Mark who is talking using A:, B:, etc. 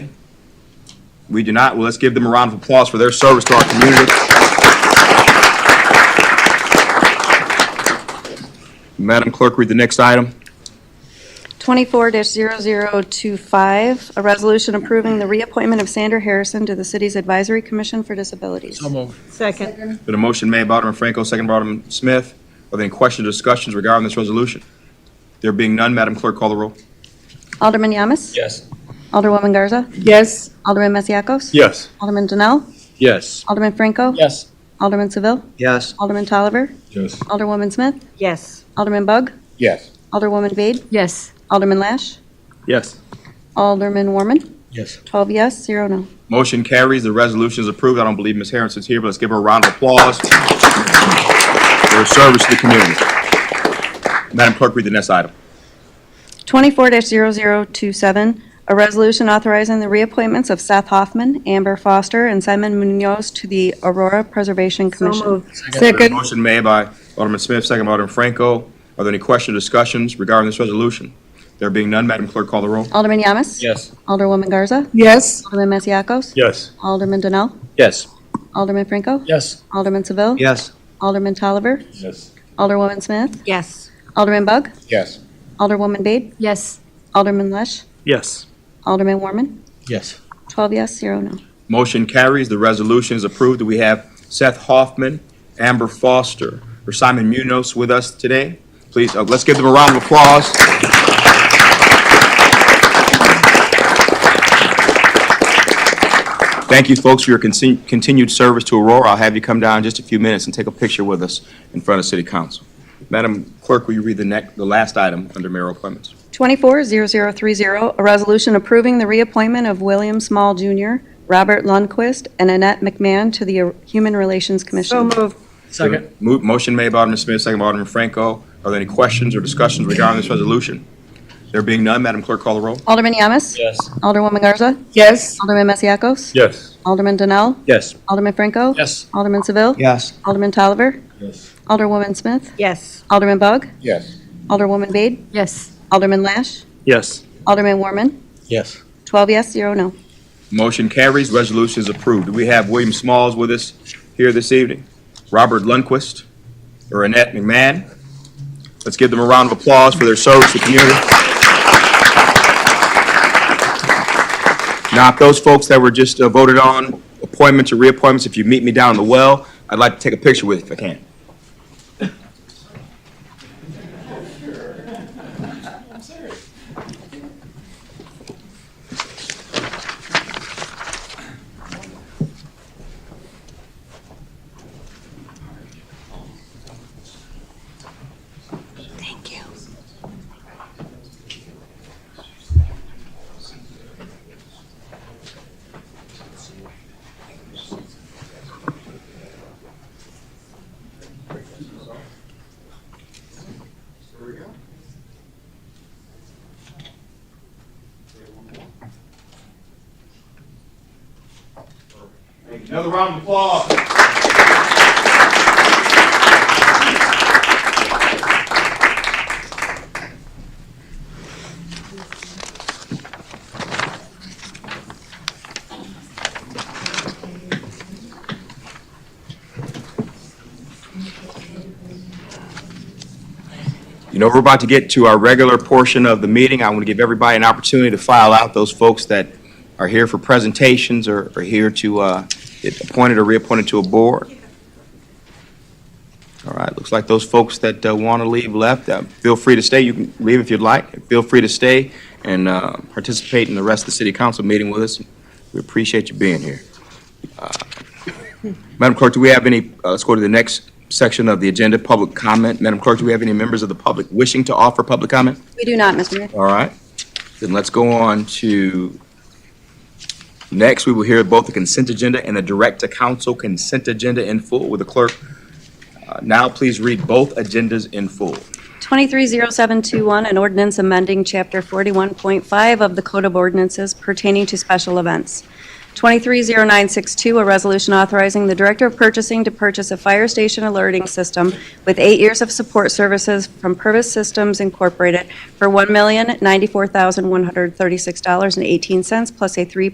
A: We do not. Well, let's give them a round of applause for their service to our community. Madam Clerk, read the next item.
B: 24-0025, a resolution approving the reappointment of Sandra Harrison to the city's Advisory Commission for Disabilities.
C: So moved.
D: Second.
A: Been a motion made by Alderman Franco, second by Alderman Smith. Are there any questions or discussions regarding this resolution? There being none, Madam Clerk, call the roll.
B: Alderman Yamas?
C: Yes.
B: Alderwoman Garza?
D: Yes.
B: Alderman Masiacos?
A: Yes.
B: Alderman Denell?
C: Yes.
B: Alderman Franco?
C: Yes.
B: Alderman Seville?
C: Yes.
B: Alderman Tolliver?
C: Yes.
B: Alderwoman Smith?
D: Yes.
B: Alderman Bug?
C: Yes.
B: Alderwoman Vade?
D: Yes.
B: Alderman Lash?
C: Yes.
B: Alderman Warman?
C: Yes.
B: 12 yes, 0 no.
A: Motion carries. The resolution is approved. I don't believe Ms. Harrison's here, but let's give her a round of applause for her service to the community. Madam Clerk, read the next item.
B: 24-0027, a resolution authorizing the reappointments of Seth Hoffman, Amber Foster, and Simon Munoz to the Aurora Preservation
D: So
B: Commission.
D: moved.
A: There's a Motion made by Alderman Smith, second by Alderman Franco. Are there any questions or discussions regarding this resolution? There being none, Madam Clerk, call the roll.
B: Alderman Yamas?
C: Yes.
B: Alderwoman Garza?
D: Yes.
B: Alderman Masiacos?
C: Yes.
B: Alderman Donnell?
C: Yes.
B: Alderman Franco?
C: Yes.
B: Alderman Seville?
C: Yes.
B: Alderman Tolliver?
C: Yes.
B: Alderwoman Smith?
D: Yes.
B: Alderman Bug?
C: Yes.
B: Alderwoman Bade?
D: Yes.
B: Alderman Lesh?
C: Yes.
B: Alderman Warman?
C: Yes.
B: 12 yes, 0 no.
A: Motion carries. The resolution is approved. We have Seth Hoffman, Amber Foster, or Simon Munoz with us today. Please, uh, let's give them a round of applause. Thank you, folks, for your contin- continued service to Aurora. I'll have you come down in just a few minutes and take a picture with us in front of City Council. Madam Clerk, will you read the next, the last item under mayor appointments?
B: 24-0030, a resolution approving the reappointment of William Small Jr., Robert Lundquist, and Annette McMahon to the Human Relations
D: So
B: Commission.
D: moved.
C: Second.
A: Mo- Motion made by Alderman Smith, second by Alderman Franco. Are there any questions or discussions regarding this resolution? There being none, Madam Clerk, call the roll.
B: Alderman Yamas?
C: Yes.
B: Alderwoman Garza?
D: Yes.
B: Alderman Masiacos?
C: Yes.
B: Alderman Donnell?
C: Yes.
B: Alderman Franco?
C: Yes.
B: Alderman Seville?
C: Yes.
B: Alderman Tolliver?
C: Yes.
B: Alderwoman Smith?
D: Yes.
B: Alderman Bug?
C: Yes.
B: Alderwoman Bade?
D: Yes.
B: Alderman Lash?
C: Yes.
B: Alderman Warman?
C: Yes.
B: 12 yes, 0 no.
A: Motion carries, resolution is approved. Do we have William Smalls with us here this evening? Robert Lundquist or Annette McMahon? Let's give them a round of applause for their service to the community. Now, if those folks that were just uh, voted on, appointments or reappointments, if you meet me down in the well, I'd like to take a picture with you if I can.
B: Thank you.
A: Another round of applause. You know, we're about to get to our regular portion of the meeting. I want to give everybody an opportunity to file out those folks that are here for presentations or are here to uh, get appointed or reappointed to a board. All right, looks like those folks that want to leave left. Uh, Feel free to stay. You can leave if you'd like. Feel free to stay and uh, participate in the rest of the city council meeting with us. We appreciate you being here. Uh, Madam Clerk, do we have any, uh, let's go to the next section of the agenda, public comment. Madam Clerk, do we have any members of the public wishing to offer public comment?
B: We do not, Mr. Mayor.
A: All right, then let's go on to, next, we will hear both the consent agenda and the direct-to-council consent agenda in full. With the clerk uh, now please read both agendas in full?
B: 230721, an ordinance amending Chapter 41.5 of the Code of Ordinances pertaining to special events. 230962, a resolution authorizing the Director of Purchasing to purchase a fire station alerting system with eight years of support services from Purvis Systems Incorporated for $1,094,136.18 plus a 3